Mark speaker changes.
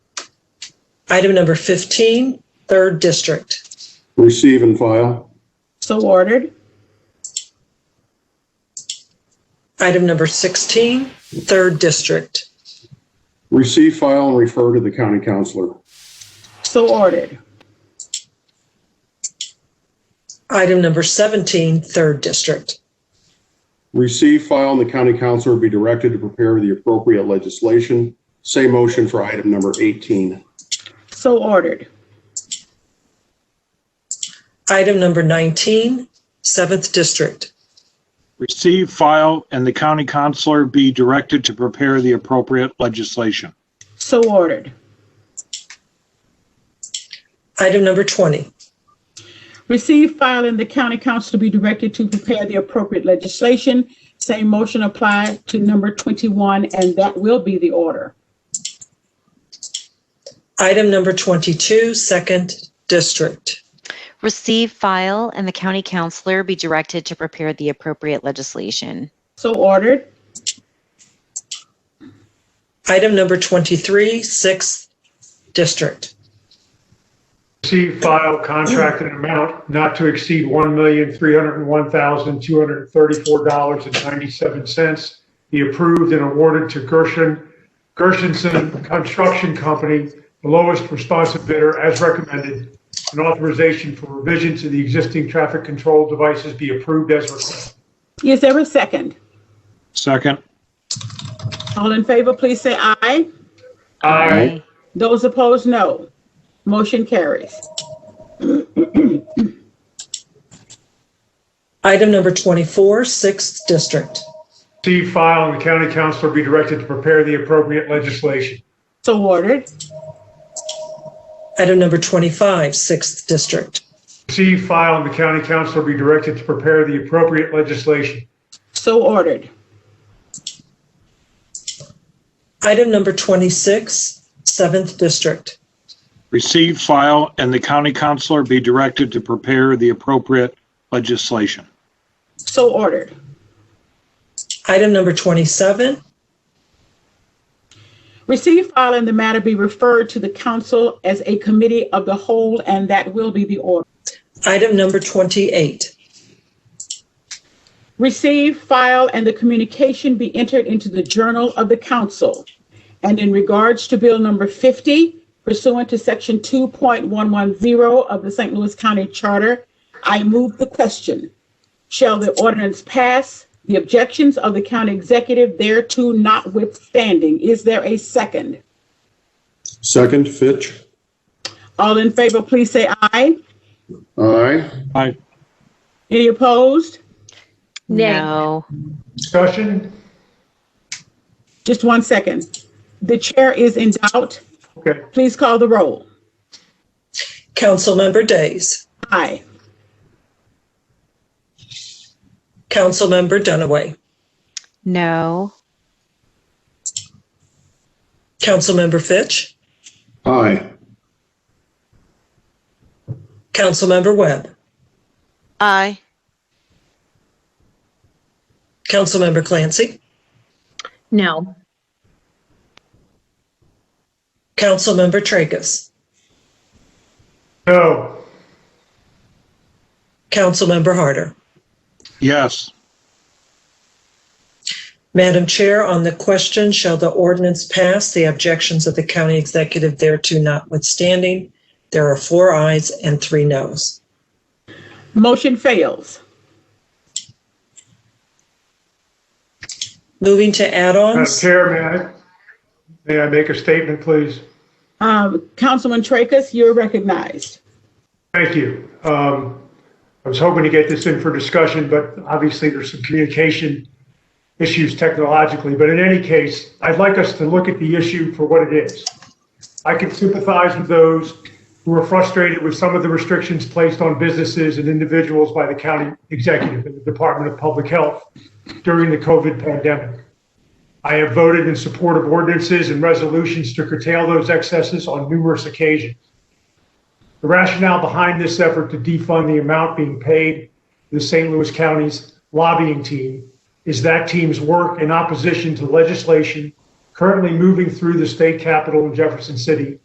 Speaker 1: Item number 15, Third District.
Speaker 2: receive and file,
Speaker 3: So ordered.
Speaker 1: Item number 16, Third District.
Speaker 2: receive, file, and refer to the county counselor.
Speaker 3: So ordered.
Speaker 1: Item number 17, Third District.
Speaker 2: Receive, file, and the county counselor be directed to prepare the appropriate legislation. Same motion for item number 18.
Speaker 3: So ordered.
Speaker 1: Item number 19, Seventh District.
Speaker 4: Receive, file, and the county counselor be directed to prepare the appropriate legislation.
Speaker 3: So ordered.
Speaker 1: Item number 20,
Speaker 3: Receive, file, and the county council to be directed to prepare the appropriate legislation. Same motion applied to number 21, and that will be the order.
Speaker 1: item number 22, Second District.
Speaker 5: Receive, file, and the county counselor be directed to prepare the appropriate legislation.
Speaker 3: So ordered.
Speaker 1: Item number 23, Sixth District.
Speaker 6: Receive file contract in an amount not to exceed $1,301,234.97. Be approved and awarded to Gershon, Gershenson Construction Company, the lowest responsive bidder as recommended. An authorization for revision to the existing traffic control devices be approved as requested.
Speaker 3: Is there a second?
Speaker 4: Second,
Speaker 3: All in favor, please say aye.
Speaker 6: Aye.
Speaker 3: Those opposed, no. Motion carries.
Speaker 1: Item number 24, Sixth District.
Speaker 6: Receive file and the county councilor be directed to prepare the appropriate legislation.
Speaker 3: So ordered.
Speaker 1: Item number 25, Sixth District.
Speaker 6: Receive file and the county councilor be directed to prepare the appropriate legislation.
Speaker 3: So ordered.
Speaker 1: Item number 26, Seventh District.
Speaker 4: receive, file, and the county counselor be directed to prepare the appropriate legislation.
Speaker 3: So ordered.
Speaker 1: Item number 27,
Speaker 3: Receive, file, and the matter be referred to the council as a committee of the whole, and that will be the order.
Speaker 1: item number 28,
Speaker 3: Receive, file, and the communication be entered into the Journal of the Council. And in regards to Bill Number 50 pursuant to Section 2.110 of the St. Louis County Charter, I move the question. Shall the ordinance pass, the objections of the county executive thereto notwithstanding? Is there a second?
Speaker 2: Second, Fitch.
Speaker 3: All in favor, please say aye.
Speaker 2: Aye.
Speaker 4: Aye.
Speaker 3: Any opposed?
Speaker 7: Nay.
Speaker 5: No.
Speaker 6: Discussion?
Speaker 3: Just one second. The chair is in doubt.
Speaker 6: Okay.
Speaker 3: Please call the roll.
Speaker 1: Councilmember Days,
Speaker 3: Aye.
Speaker 1: Councilmember Dunaway,
Speaker 5: No.
Speaker 1: Councilmember Fitch,
Speaker 2: Aye.
Speaker 1: Councilmember Webb,
Speaker 7: Aye.
Speaker 1: Councilmember Clancy,
Speaker 7: No.
Speaker 1: Councilmember Tracus,
Speaker 6: No.
Speaker 1: Councilmember Harder.
Speaker 4: Yes,
Speaker 1: Madam Chair, on the question, shall the ordinance pass, the objections of the county executive thereto notwithstanding, there are four ayes and three noes.
Speaker 3: Motion fails.
Speaker 1: Moving to
Speaker 6: Madam
Speaker 1: add-ons,
Speaker 6: Chair, may I, may I make a statement, please?
Speaker 3: Um, Councilman Tracus, you're recognized.
Speaker 6: Thank you. Um, I was hoping to get this in for discussion, but obviously there's some communication issues technologically. But in any case, I'd like us to look at the issue for what it is. I can sympathize with those who are frustrated with some of the restrictions placed on businesses and individuals by the county executive and the Department of Public Health during the COVID pandemic. I have voted in support of ordinances and resolutions to curtail those excesses on numerous occasions. The rationale behind this effort to defund the amount being paid to the St. Louis County's lobbying team is that team's work in opposition to legislation currently moving through the state capitol in Jefferson City